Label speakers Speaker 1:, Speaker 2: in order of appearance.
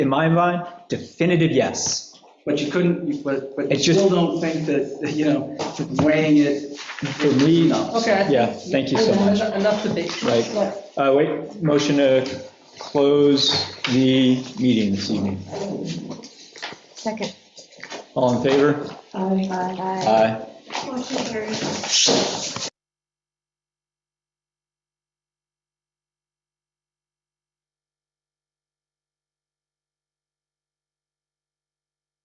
Speaker 1: in my mind, definitive yes.
Speaker 2: But you couldn't, but, but you
Speaker 1: It's just-
Speaker 2: still don't think that, you know, weighing it,
Speaker 1: For me,
Speaker 3: Okay.
Speaker 1: yeah, thank you so much.
Speaker 3: Enough debate.
Speaker 1: Right.
Speaker 3: Yeah.
Speaker 1: Uh, wait, motion to close the meeting this evening.
Speaker 4: Second.
Speaker 1: All in favor?
Speaker 4: Aye.
Speaker 1: Aye.
Speaker 5: Motion carries.